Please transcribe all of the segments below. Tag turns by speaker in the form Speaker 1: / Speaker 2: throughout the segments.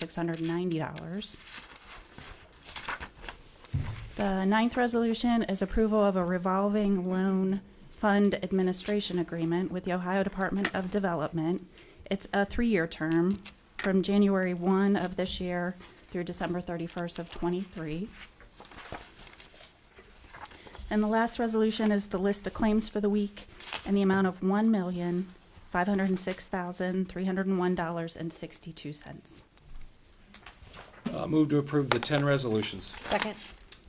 Speaker 1: six hundred and ninety dollars. The ninth resolution is approval of a revolving loan fund administration agreement with the Ohio Department of Development. It's a three-year term from January one of this year through December thirty-first of twenty-three. And the last resolution is the list of claims for the week and the amount of one million, five hundred and six thousand, three hundred and one dollars and sixty-two cents.
Speaker 2: Uh, Move to approve the 10 resolutions.
Speaker 3: Second.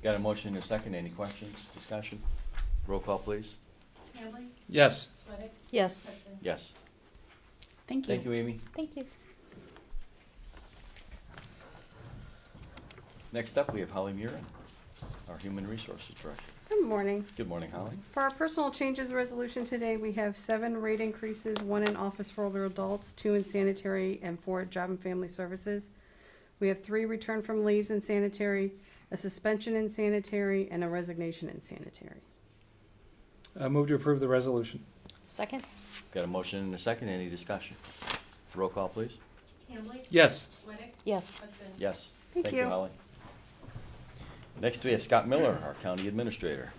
Speaker 4: Got a motion and a second, any questions, discussion? Roll call, please.
Speaker 5: Hambley?
Speaker 2: Yes.
Speaker 5: Sweattick?
Speaker 3: Yes.
Speaker 5: Hudson?
Speaker 4: Yes.
Speaker 1: Thank you.
Speaker 4: Thank you, Amy.
Speaker 3: Thank you.
Speaker 4: Next up, we have Holly Murin, our Human Resources Director.
Speaker 6: Good morning.
Speaker 4: Good morning, Holly.
Speaker 6: For our personal changes resolution today, we have seven rate increases, one in office for older adults, two in sanitary, and four at job and family services. We have three return from leaves in sanitary, a suspension in sanitary, and a resignation in sanitary.
Speaker 2: Uh, Move to approve the resolution.
Speaker 3: Second.
Speaker 4: Got a motion and a second, any discussion? Roll call, please.
Speaker 5: Hambley?
Speaker 2: Yes.
Speaker 5: Sweattick?
Speaker 3: Yes.
Speaker 5: Hudson?
Speaker 4: Yes.
Speaker 6: Thank
Speaker 4: Thank you,
Speaker 6: you.
Speaker 4: Holly. Next, we have Scott Miller, our County Administrator.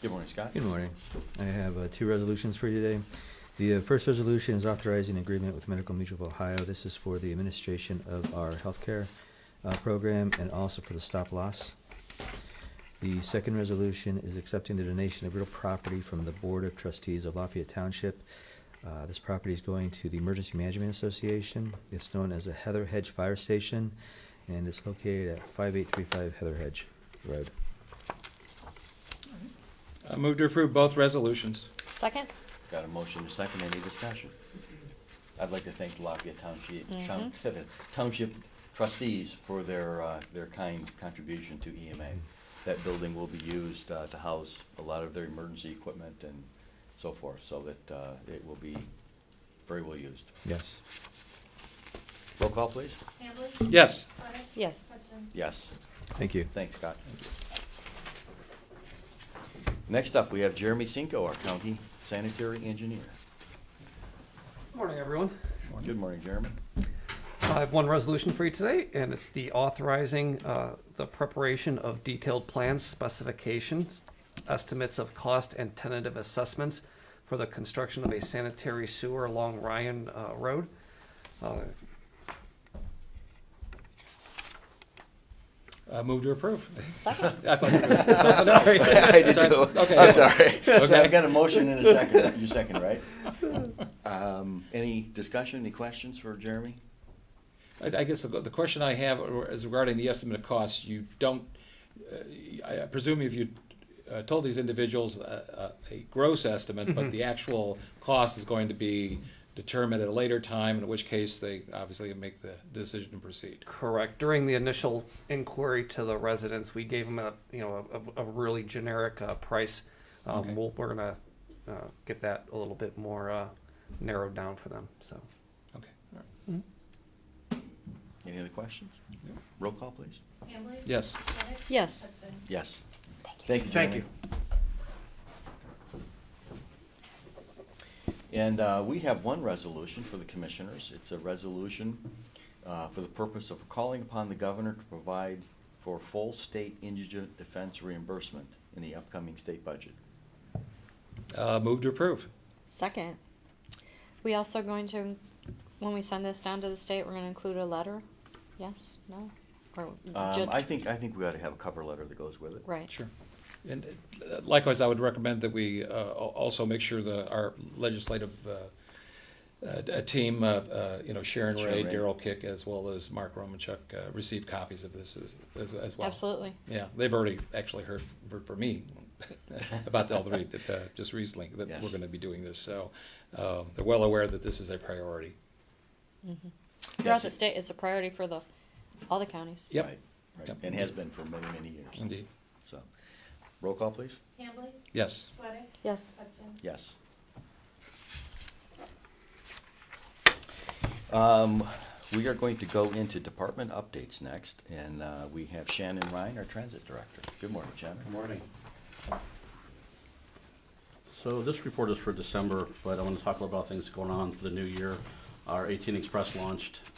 Speaker 4: Good morning, Scott.
Speaker 7: Good morning. I have uh, two resolutions for you today. The uh, first resolution is authorizing agreement with Medical Mutual of Ohio. This is for the administration of our healthcare uh, program and also for the stop loss. The second resolution is accepting the donation of real property from the Board of Trustees of Lafayette Township. Uh, This property is going to the Emergency Management Association. It's known as the Heather Hedge Fire Station, and it's located at 5835 Heather Hedge Road.
Speaker 2: Uh, Move to approve both resolutions.
Speaker 3: Second.
Speaker 4: Got a motion and a second, any discussion? I'd like to thank Lafayette Township, Town- Township trustees for their, uh, their kind contribution to EMA. That building will be used uh, to house a lot of their emergency equipment and so forth, so that uh, it will be very well used.
Speaker 7: Yes.
Speaker 4: Roll call, please.
Speaker 5: Hambley?
Speaker 2: Yes.
Speaker 5: Sweattick?
Speaker 3: Yes.
Speaker 5: Hudson?
Speaker 4: Yes,
Speaker 7: Thank you.
Speaker 4: thanks, Scott. Next up, we have Jeremy Cinco, our county sanitary engineer.
Speaker 8: Morning, everyone.
Speaker 4: Good morning, Jeremy.
Speaker 8: I have one resolution for you today, and it's the authorizing uh, the preparation of detailed plans, specifications, estimates of cost, and tentative assessments for the construction of a sanitary sewer along Ryan uh, Road. Uh,
Speaker 2: Uh, Move to approve.
Speaker 3: Second.
Speaker 2: I thought it was something else.
Speaker 4: I did
Speaker 2: Sorry.
Speaker 4: too.
Speaker 2: Okay.
Speaker 4: I'm sorry.
Speaker 2: Okay.
Speaker 4: I got a motion in a second. You second, right? Um, any discussion, any questions for Jeremy?
Speaker 2: I, I guess the, the question I have is regarding the estimate of costs. You don't, uh, I presume if you uh, told these individuals a, a a gross estimate,
Speaker 4: Mm-hmm.
Speaker 2: but the actual cost is going to be determined at a later time, in which case they obviously make the decision to proceed.
Speaker 8: Correct. During the initial inquiry to the residents, we gave them a, you know, a, a really generic uh, price. Um,
Speaker 2: Okay.
Speaker 8: we'll, we're gonna uh, get that a little bit more uh, narrowed down for them, so.
Speaker 2: Okay. All right.
Speaker 4: Any other questions?
Speaker 2: No.
Speaker 4: Roll call, please.
Speaker 5: Hambley?
Speaker 2: Yes.
Speaker 5: Sweattick?
Speaker 3: Yes.
Speaker 5: Hudson?
Speaker 4: Yes. Thank you,
Speaker 8: Thank
Speaker 4: Jeremy. And uh, we have one resolution for the commissioners. It's a resolution uh, for the purpose of calling upon the governor to provide for full state indigent defense reimbursement in the upcoming state budget.
Speaker 2: Uh, Move to approve.
Speaker 3: Second. We also going to, when we send this down to the state, we're gonna include a letter? Yes, no? Or ju-
Speaker 4: Um, I think, I think we ought to have a cover letter that goes with it.
Speaker 3: Right.
Speaker 2: Sure. And uh, likewise, I would recommend that we uh, al- also make sure that our legislative uh, uh, d- team, uh, uh, you know, Sharon
Speaker 4: Sharon
Speaker 2: Ray,
Speaker 4: Ray.
Speaker 2: Daryl Kick, as well as Mark Romanchuk, uh, receive copies of this as- as as well.
Speaker 3: Absolutely.
Speaker 2: Yeah, they've already actually heard for- for me about the Elder Reed, uh just recently, that we're
Speaker 4: Yes.
Speaker 2: going to be doing this. So um, they're well aware that this is a priority.
Speaker 4: Yes,
Speaker 3: Throughout the
Speaker 4: it-
Speaker 3: state, it's a priority for the, all the counties.
Speaker 2: Yep.
Speaker 4: Right, right.
Speaker 2: Yep.
Speaker 4: And has been for many, many years.
Speaker 2: Indeed.
Speaker 4: So, roll call, please.
Speaker 5: Hambley?
Speaker 2: Yes.
Speaker 5: Sweattick?
Speaker 3: Yes.
Speaker 5: Hudson?
Speaker 4: Yes. Um, We are going to go into department updates next, and uh, we have Shannon Ryan, our transit director. Good morning, Shannon.
Speaker 9: Morning. So this report is for December, but I want to talk a little about things going on for the new year. Our 18 Express launched